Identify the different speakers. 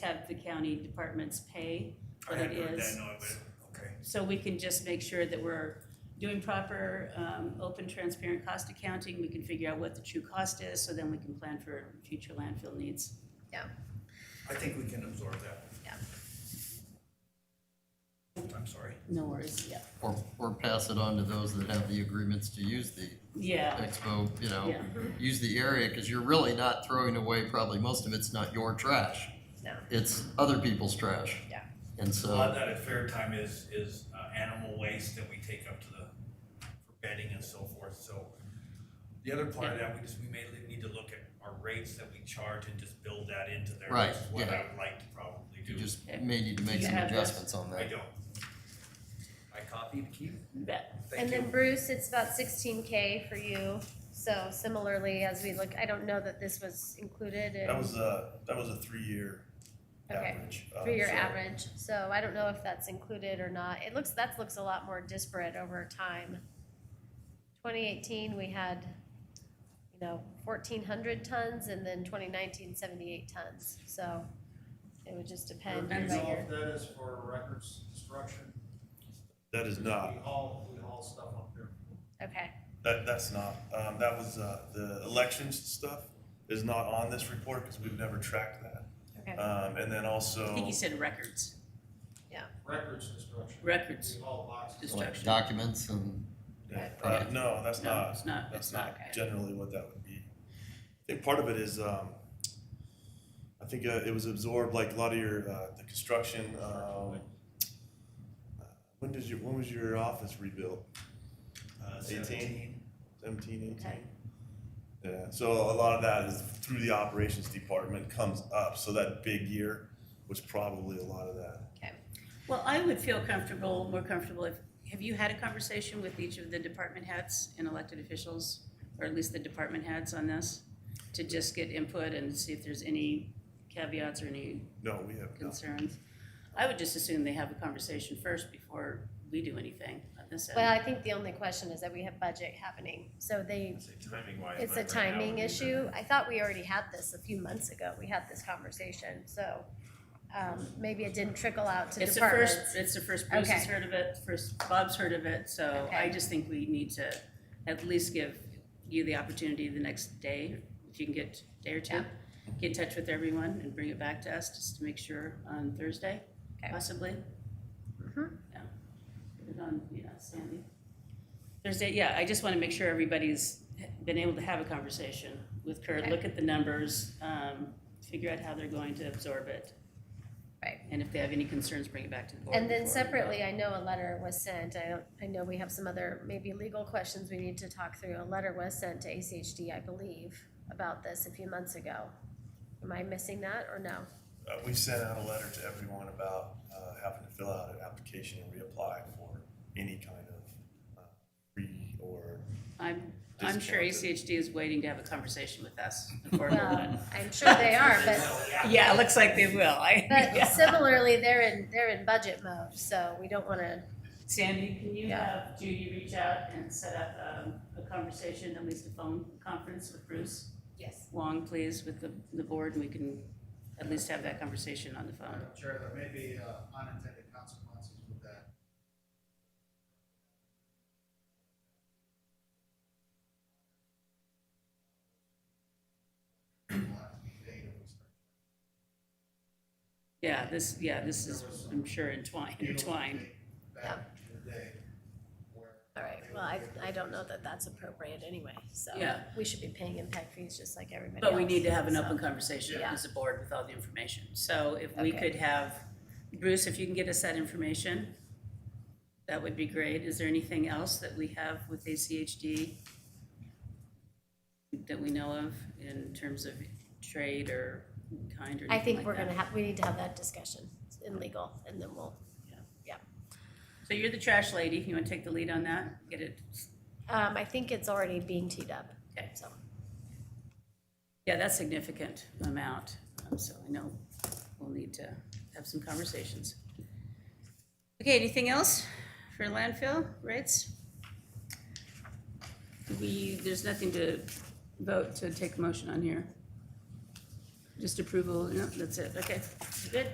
Speaker 1: have the county departments pay
Speaker 2: I
Speaker 1: what it
Speaker 2: hadn't heard that,
Speaker 1: is.
Speaker 2: no, but, okay.
Speaker 1: So we can just make sure that we're doing proper, um, open, transparent cost accounting. We can figure out what the true cost is, so then we can plan for future landfill needs.
Speaker 2: I think we can absorb that.
Speaker 3: Yeah.
Speaker 2: I'm sorry.
Speaker 1: No worries, yeah.
Speaker 4: Or, or pass it on to those that have the agreements to use the
Speaker 1: Yeah,
Speaker 4: expo, you know,
Speaker 1: yeah,
Speaker 4: use the area, cause you're really not throwing away, probably most of it's not your trash.
Speaker 3: No.
Speaker 4: It's other people's trash.
Speaker 3: Yeah.
Speaker 4: And
Speaker 2: A lot
Speaker 4: so,
Speaker 2: of that at fair time is, is uh, animal waste that we take up to the, for bedding and so forth, so. The other part of that, we just, we may li- need to look at our rates that we charge and just build that into there.
Speaker 4: Right,
Speaker 2: which is What
Speaker 4: yeah.
Speaker 2: I would like to probably
Speaker 4: you
Speaker 2: do.
Speaker 4: just may need to make
Speaker 1: You
Speaker 4: some
Speaker 1: have this.
Speaker 4: adjustments on
Speaker 2: I
Speaker 4: that.
Speaker 2: don't. I copied, Keith,
Speaker 1: bet.
Speaker 2: thank
Speaker 3: And
Speaker 2: you.
Speaker 3: then Bruce, it's about sixteen K for you, so similarly, as we look, I don't know that this was included
Speaker 5: That
Speaker 3: in,
Speaker 5: was a, that was a three-year
Speaker 3: Okay.
Speaker 5: average. uh,
Speaker 3: for your
Speaker 5: so-
Speaker 3: average, so I don't know if that's included or not, it looks, that looks a lot more disparate over time. Twenty eighteen, we had, you know, fourteen hundred tons, and then 2019, 78 tons, so it would just depend year
Speaker 6: Depends
Speaker 3: by
Speaker 6: on
Speaker 3: year.
Speaker 6: if that is for records destruction.
Speaker 5: That is not,
Speaker 6: We haul, we haul stuff up there.
Speaker 3: okay,
Speaker 5: that, that's not, um, that was, uh, the elections stuff is not on this report because we've never tracked that.
Speaker 3: okay.
Speaker 5: Um, and then
Speaker 1: I think
Speaker 5: also,
Speaker 1: he said records,
Speaker 6: Records destruction.
Speaker 1: records,
Speaker 6: We haul boxes.
Speaker 4: Like
Speaker 1: destruction.
Speaker 4: documents and,
Speaker 5: uh, no, that's
Speaker 1: No,
Speaker 5: not,
Speaker 1: it's not,
Speaker 5: that's
Speaker 1: it's not.
Speaker 5: not generally what that would be. I think part of it is, um, I think, uh, it was absorbed, like a lot of your, uh, the construction, um, uh, when does your, when was your office rebuilt?
Speaker 2: Uh,
Speaker 5: 18?
Speaker 2: 17.
Speaker 5: Seventeen,
Speaker 3: Okay.
Speaker 5: eighteen? Yeah, so a lot of that is through the operations department comes up, so that big year was probably a lot of that.
Speaker 1: Well, I would feel comfortable, more comfortable if, have you had a conversation with each of the department heads and elected officials? Or at least the department heads on this, to just get input and see if there's any caveats or any
Speaker 5: No, we have not.
Speaker 1: concerns? I would just assume they have a conversation first before we do anything on this end.
Speaker 3: Well, I think the only question is that we have budget happening, so they,
Speaker 2: Timing wise.
Speaker 3: it's a timing issue. I thought we already had this a few months ago, we had this conversation, so, um, maybe it didn't trickle out to
Speaker 1: It's the first,
Speaker 3: departments.
Speaker 1: it's the first Bruce has
Speaker 3: Okay.
Speaker 1: heard of it, first Bob's heard of it, so I
Speaker 3: Okay.
Speaker 1: just think we need to at least give you the opportunity the next day, if you can get day or two,
Speaker 3: Yeah.
Speaker 1: get in touch with everyone and bring it back to us just to make sure on Thursday,
Speaker 3: Okay.
Speaker 1: possibly.
Speaker 3: Mhm.
Speaker 1: Yeah. Put it on, yeah, Sandy. Thursday, yeah, I just want to make sure everybody's been able to have a conversation with Kurt,
Speaker 3: Okay.
Speaker 1: look at the numbers, um, figure out how they're going to absorb it.
Speaker 3: Right.
Speaker 1: And if they have any concerns, bring it back to the board.
Speaker 3: And then
Speaker 1: before we vote.
Speaker 3: separately, I know a letter was sent, I don't, I know we have some other maybe legal questions we need to talk through. A letter was sent to ACHD, I believe, about this a few months ago. Am I missing that or no?
Speaker 5: Uh, we sent out a letter to everyone about, uh, having to fill out an application and reapply for any kind of, uh, free or,
Speaker 1: I'm, I'm sure
Speaker 5: Discounted.
Speaker 1: ACHD is waiting to have a conversation with us before we
Speaker 3: Well, I'm sure they are, but
Speaker 1: Yeah, it looks like they will. I,
Speaker 3: But
Speaker 1: yeah.
Speaker 3: similarly, they're in, they're in budget mode, so we don't wanna,
Speaker 1: Sandy, can you
Speaker 3: Yeah.
Speaker 1: have Judy reach out and set up um, a conversation, at least a phone conference with Bruce
Speaker 3: yes,
Speaker 1: Wong, please, with the, the board, and we can at least have that conversation on the phone.
Speaker 6: Madam Chair, there may be uh, unintended consequences with that.
Speaker 1: Yeah, this, yeah, this is,
Speaker 6: There was some-
Speaker 1: I'm sure entwined, entwined.
Speaker 6: Back in the day where.
Speaker 3: all right, well, I, I don't know that that's appropriate anyway, so.
Speaker 1: Yeah.
Speaker 3: We should be paying impact fees just like everybody else.
Speaker 1: But we need to have an
Speaker 3: so.
Speaker 1: open conversation
Speaker 3: Yeah.
Speaker 1: as a board with all the information. So if we
Speaker 3: Okay.
Speaker 1: could have, Bruce, if you can get us that information, that would be great. Is there anything else that we have with ACHD that we know of in terms of trade or kind or anything
Speaker 3: I think
Speaker 1: like
Speaker 3: we're
Speaker 1: that?
Speaker 3: gonna have, we need to have that discussion in legal, and then we'll,
Speaker 1: So you're the trash lady. You want to take the lead on that? Get it?
Speaker 3: um, I think it's already being teed up.
Speaker 1: Okay.
Speaker 3: So,
Speaker 1: Yeah, that's significant amount. Um, So I know we'll need to have some conversations. Okay, anything else for landfill rates? We, there's nothing to vote to take a motion on here. Just approval, no, that's it, okay. Good